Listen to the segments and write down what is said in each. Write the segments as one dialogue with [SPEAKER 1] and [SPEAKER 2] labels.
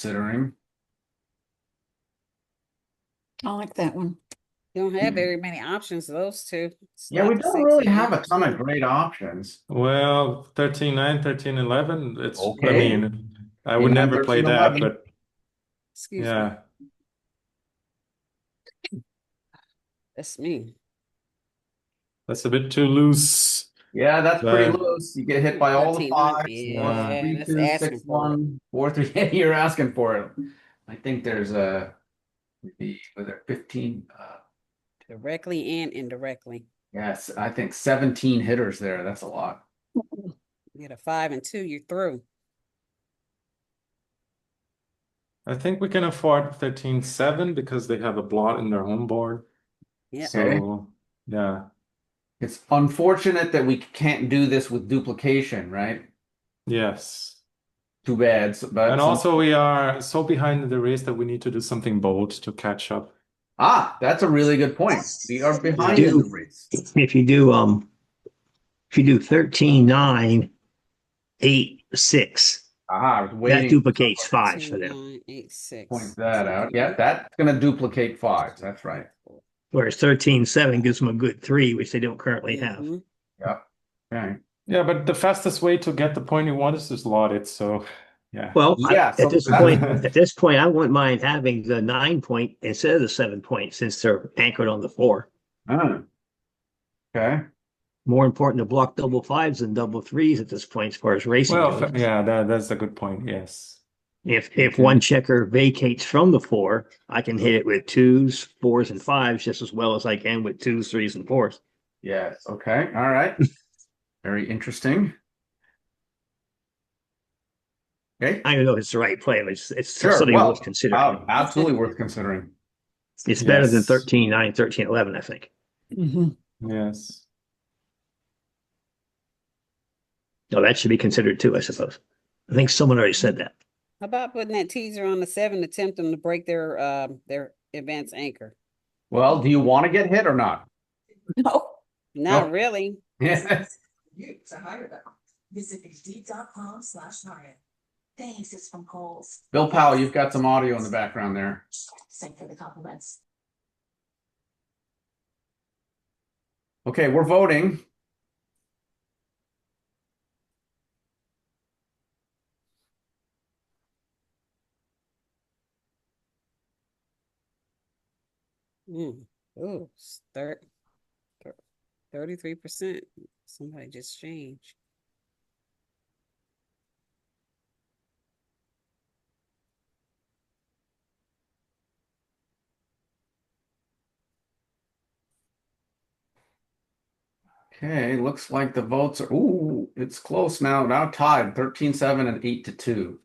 [SPEAKER 1] considering.
[SPEAKER 2] I like that one.
[SPEAKER 3] Don't have
[SPEAKER 1] Mhm.
[SPEAKER 3] very many options, those two. It's
[SPEAKER 1] Yeah, we
[SPEAKER 3] like
[SPEAKER 1] don't
[SPEAKER 3] six
[SPEAKER 1] really
[SPEAKER 3] and
[SPEAKER 1] have a ton of
[SPEAKER 3] two.
[SPEAKER 1] great options.
[SPEAKER 4] Well, 13 9, 13 11, it's, I
[SPEAKER 1] Okay.
[SPEAKER 4] mean, I
[SPEAKER 1] You
[SPEAKER 4] would
[SPEAKER 1] have
[SPEAKER 4] never play
[SPEAKER 1] 13,
[SPEAKER 4] that,
[SPEAKER 1] 11.
[SPEAKER 4] but
[SPEAKER 3] Excuse me,
[SPEAKER 4] yeah.
[SPEAKER 3] that's me.
[SPEAKER 4] That's a bit too loose.
[SPEAKER 1] Yeah, that's pretty
[SPEAKER 4] Right.
[SPEAKER 1] loose. You get hit by all the
[SPEAKER 3] 13, huh?
[SPEAKER 1] fives.
[SPEAKER 3] Yeah,
[SPEAKER 1] one, three,
[SPEAKER 3] that's
[SPEAKER 1] two,
[SPEAKER 3] asking
[SPEAKER 1] six,
[SPEAKER 3] for it.
[SPEAKER 1] one, four, three. Yeah, you're asking for it. I think there's a maybe was there 15 uh
[SPEAKER 3] Directly and indirectly.
[SPEAKER 1] yes, I think 17 hitters there. That's a lot.
[SPEAKER 2] Mm-hmm.
[SPEAKER 3] You get a five and two, you're through.
[SPEAKER 4] I think we can afford 13 7 because they have a blot in their home board.
[SPEAKER 3] Yeah,
[SPEAKER 1] So- Okay.
[SPEAKER 4] So, yeah.
[SPEAKER 1] It's unfortunate that we can't do this with duplication, right?
[SPEAKER 4] Yes.
[SPEAKER 1] Too bad. so- But
[SPEAKER 4] And
[SPEAKER 1] some-
[SPEAKER 4] also, we are so behind in the race that we need to do something bold to catch up.
[SPEAKER 1] ah, that's a really good point. We are behind in the
[SPEAKER 5] do.
[SPEAKER 1] race.
[SPEAKER 5] if you do um if you do 13 9 8 6
[SPEAKER 1] Ah, I was
[SPEAKER 5] that
[SPEAKER 1] waiting.
[SPEAKER 5] duplicates five
[SPEAKER 3] two,
[SPEAKER 5] for them
[SPEAKER 3] nine, eight, six.
[SPEAKER 1] Point that out. Yeah, that's gonna duplicate fives. That's right.
[SPEAKER 5] whereas 13 7 gives them a good three which they don't currently have
[SPEAKER 3] Mhm.
[SPEAKER 1] Okay.
[SPEAKER 4] Yeah, but the fastest way to get the point you want is to slot it. So, yeah.
[SPEAKER 5] well I-
[SPEAKER 1] Yeah, so
[SPEAKER 5] at this
[SPEAKER 1] that-
[SPEAKER 5] point at this point i wouldn't mind having the nine point instead of the seven point since they're anchored on the four
[SPEAKER 1] Ah. Okay.
[SPEAKER 5] more important to block double fives than double threes at this point as far as racing
[SPEAKER 4] Well,
[SPEAKER 5] goes.
[SPEAKER 4] yeah, that, that's a good point. Yes.
[SPEAKER 5] if if one checker vacates from the four i can hit it with twos fours and fives just as well as i can with twos threes and fours
[SPEAKER 1] Yes. Okay. All right. Very interesting. Okay.
[SPEAKER 5] I don't know if it's the right play, but it's, it's
[SPEAKER 1] Sure,
[SPEAKER 5] something
[SPEAKER 1] well, um,
[SPEAKER 5] worth considering.
[SPEAKER 1] Wow, absolutely worth considering.
[SPEAKER 5] it's better than
[SPEAKER 4] yes.
[SPEAKER 5] 13, 9, 13, 11, I think.
[SPEAKER 2] Mhm.
[SPEAKER 4] Yes.
[SPEAKER 5] No, that should be considered too, I suppose. I think someone already said that.
[SPEAKER 3] How about putting that teaser on the seven to tempt them to break their, um, their advance anchor?
[SPEAKER 1] Well, do you want to get hit or not?
[SPEAKER 2] No.
[SPEAKER 3] Not really.
[SPEAKER 1] Yes.
[SPEAKER 6] You to hire them. Visit hd.com slash hire. Thanks, it's from Coles.
[SPEAKER 1] Bill Powell, you've got some audio in the background there.
[SPEAKER 6] Thanks for the compliments.
[SPEAKER 1] Okay, we're voting.
[SPEAKER 3] Mm. Ooh, thirty, thirty-three percent. Somebody just changed.
[SPEAKER 1] Okay, looks like the votes are, ooh, it's close now. Now tied 13 7 and 8 to 2.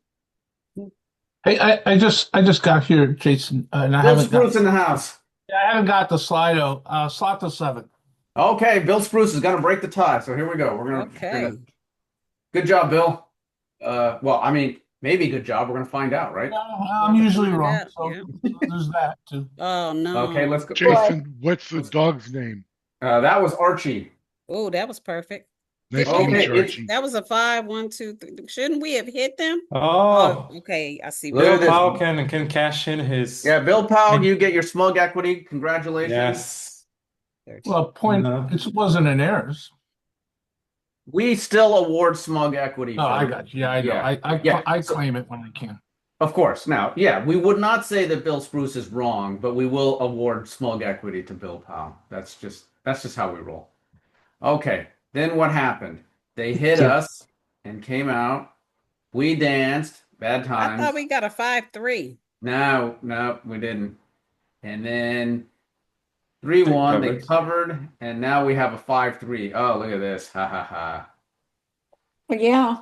[SPEAKER 7] Hey, I, I just, I just got here, Jason, uh, and I
[SPEAKER 1] Bill
[SPEAKER 7] haven't got,
[SPEAKER 1] Spruce in the house.
[SPEAKER 7] I haven't got the Slido, uh, slot the seven.
[SPEAKER 1] Okay, Bill Spruce is going to break the tie. So here we go. We're going to.
[SPEAKER 3] Okay.
[SPEAKER 1] Good job, Bill. Uh, well, I mean, maybe good job. We're going to find out, right?
[SPEAKER 7] Uh, I'm usually
[SPEAKER 3] Yeah,
[SPEAKER 7] wrong, so
[SPEAKER 3] yeah.
[SPEAKER 7] there's that too.
[SPEAKER 3] Oh, no.
[SPEAKER 1] Okay, let's go.
[SPEAKER 8] Jason, what's the dog's name?
[SPEAKER 1] Uh, that was Archie.
[SPEAKER 3] Oh, that was perfect.
[SPEAKER 8] Nice
[SPEAKER 1] Okay,
[SPEAKER 8] to meet you,
[SPEAKER 1] it-
[SPEAKER 8] Archie.
[SPEAKER 3] That was a five, one, two, three. Shouldn't we have hit them? Uh,
[SPEAKER 4] Oh,
[SPEAKER 3] okay. I see.
[SPEAKER 1] Look
[SPEAKER 4] Bill
[SPEAKER 1] at this.
[SPEAKER 4] Powell can, can cash in his.
[SPEAKER 1] Yeah, Bill Powell, you get your smug equity. Congratulations.
[SPEAKER 4] Yes.
[SPEAKER 7] Well, point,
[SPEAKER 4] No.
[SPEAKER 7] it wasn't an errors.
[SPEAKER 1] We still award smug equity.
[SPEAKER 7] No,
[SPEAKER 1] for-
[SPEAKER 7] Oh, I got you, Yeah, I know,
[SPEAKER 1] Yeah,
[SPEAKER 7] I,
[SPEAKER 1] yeah.
[SPEAKER 7] I, I claim it when I can.
[SPEAKER 1] Of course. Now, yeah, we would not say that Bill Spruce is wrong, but we will award smug equity to Bill Powell. That's just that's just how we roll. Okay. Then what happened? They hit us and came out. We danced. Bad
[SPEAKER 3] I
[SPEAKER 1] times.
[SPEAKER 3] thought we got a five, three.
[SPEAKER 1] No, no, we didn't. And then three one, they
[SPEAKER 4] covered.
[SPEAKER 1] covered, and now we have a five three. Oh, look at this. Ha ha ha.
[SPEAKER 2] Well, yeah,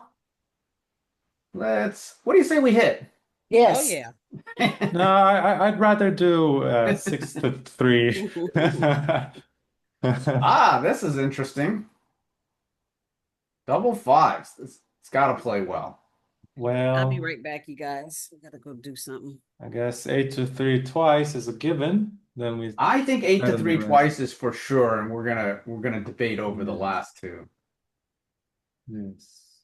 [SPEAKER 1] Let's what do you say we hit?
[SPEAKER 3] Oh,
[SPEAKER 2] yes.
[SPEAKER 3] yeah.
[SPEAKER 4] No, I, I- I'd rather do uh, six to three.
[SPEAKER 1] Ah, this is interesting. Double fives. It's, it's gotta play well.
[SPEAKER 3] I'll
[SPEAKER 4] Well,
[SPEAKER 1] Um,
[SPEAKER 3] be right back, you guys. I gotta go do something.
[SPEAKER 4] I guess eight to three twice is a given. Then we,
[SPEAKER 1] I think eight
[SPEAKER 4] Better
[SPEAKER 1] to
[SPEAKER 4] than
[SPEAKER 1] three
[SPEAKER 4] the rest.
[SPEAKER 1] twice is for sure, and we're gonna we're gonna debate over the
[SPEAKER 4] Mhm.
[SPEAKER 1] last two.
[SPEAKER 4] yes.